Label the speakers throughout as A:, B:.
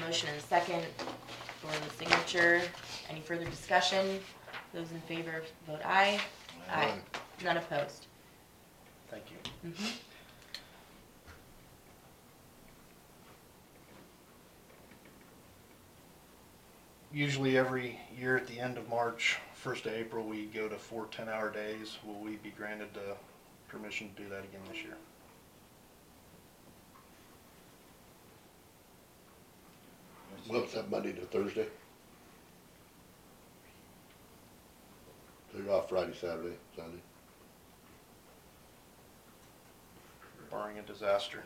A: Motion and second for the signature. Any further discussion? Those in favor, vote aye. Aye. None opposed.
B: Thank you.
A: Mhm.
B: Usually every year at the end of March, first of April, we go to four ten-hour days. Will we be granted the permission to do that again this year?
C: What's that Monday to Thursday? So you're off Friday, Saturday, Sunday?
B: barring a disaster.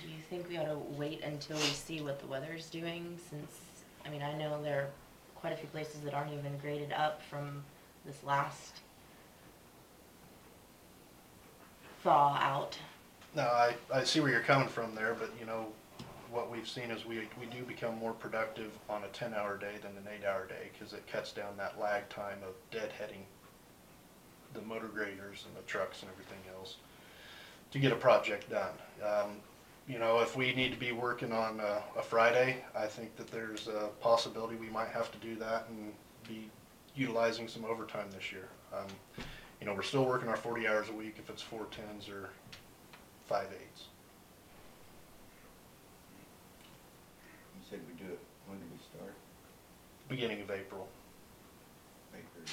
A: Do you think we ought to wait until we see what the weather's doing since, I mean, I know there are quite a few places that aren't even graded up from this last thaw out.
B: No, I, I see where you're coming from there, but you know, what we've seen is we, we do become more productive on a ten-hour day than an eight-hour day, cause it cuts down that lag time of deadheading the motor graders and the trucks and everything else to get a project done. Um, you know, if we need to be working on a, a Friday, I think that there's a possibility we might have to do that and be utilizing some overtime this year. Um, you know, we're still working our forty hours a week if it's four tens or five eights.
D: You said we do it, when did we start?
B: beginning of April.
D: Baker.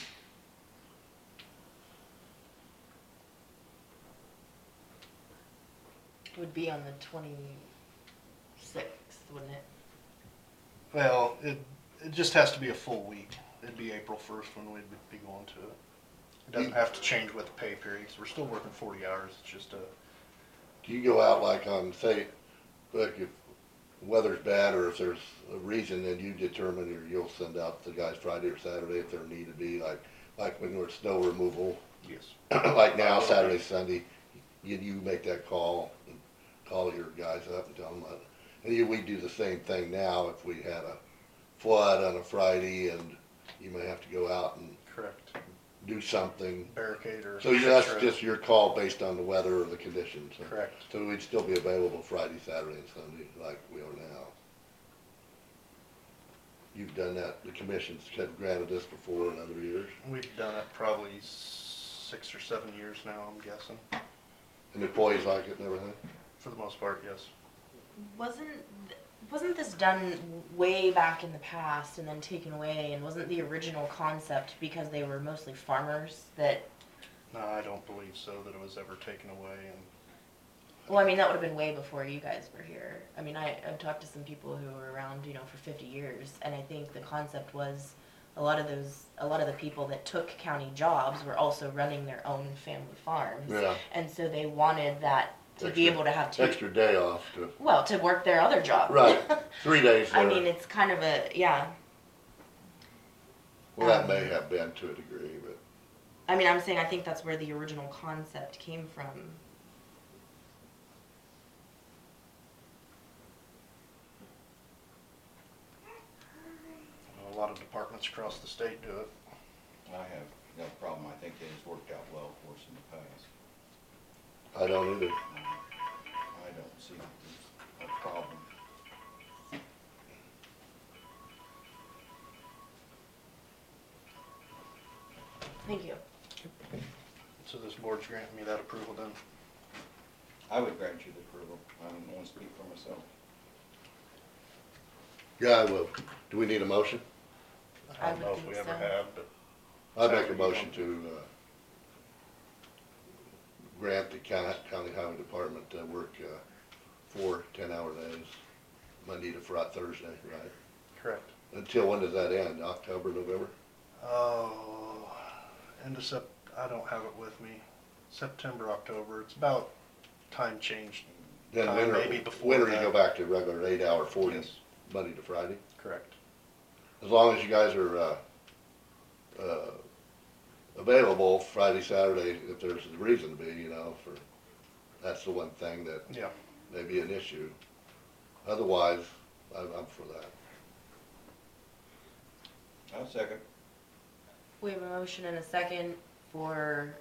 A: Would be on the twenty-sixth, wouldn't it?
B: Well, it, it just has to be a full week. It'd be April first when we'd be going to it. It doesn't have to change with the pay period, 'cause we're still working forty hours, it's just a,
C: Do you go out like on, say, look, if weather's bad or if there's a reason, then you determine or you'll send out the guys Friday or Saturday if there need to be, like, like when there's snow removal,
B: yes.
C: like now, Saturday, Sunday, you, you make that call, and call your guys up and tell them what. And you, we do the same thing now if we had a flood on a Friday and you may have to go out and
B: Correct.
C: do something.
B: Barricade or.
C: So that's
B: fence rows.
C: just your call based on the weather or the conditions. so-
B: Correct.
C: So we'd still be available Friday, Saturday and Sunday like we are now. You've done that, the commissions have granted this before in other years.
B: We've done it probably six or seven years now, I'm guessing,
C: And employees like it and everything?
B: for the most part, yes.
A: Wasn't th- wasn't this done way back in the past and then taken away? And wasn't the original concept because they were mostly farmers that?
B: No, I don't believe so, that it was ever taken away, and
A: Well, I mean that would have been way before you guys were here. I mean, I, I've talked to some people who were around, you know, for 50 years, and I think the concept was a lot of those, a lot of the people that took county jobs were also running their own family farms,
C: Yeah.
A: and so they wanted that to be
C: Extra-
A: able to have two,
C: extra day off to,
A: well, to work their other job.
C: right, three days
A: I mean,
C: there.
A: it's kind of a yeah.
C: Well, that may
A: Um,
C: have been to a degree, but
A: I mean, I'm saying I think that's where the original concept came from.
B: you know, a lot of departments across the state do it.
D: I have no problem, I think that has worked out well for us in the past.
C: I don't either.
D: I don't see that there's a problem.
A: Thank you.
B: So this board's granting me that approval then.
D: I would grant you the approval, I don't want to speak for myself.
C: Yeah, I will. Do we need a motion?
A: I
B: I don't
A: would
B: know if
A: think
B: we ever
A: so.
B: have, but
C: I make a motion to, uh, grant the county, county highway department to work, uh, four ten-hour days, Monday to Friday, Thursday, right?
B: correct.
C: Until when does that end? October, November?
B: Oh, end of Sep, I don't have it with me. September, October, it's about time change.
C: Then
B: Uh,
C: winter,
B: maybe before
C: winter you
B: that.
C: go back to regular eight-hour forty,
B: Yes.
C: Monday to Friday?
B: Correct.
C: As long as you guys are, uh, uh, available Friday, Saturday, if there's a reason to be, you know, for, that's the one thing that
B: Yeah,
C: may be an issue. Otherwise, I'm, I'm for that.
D: I'll second.
A: We have a motion and a second for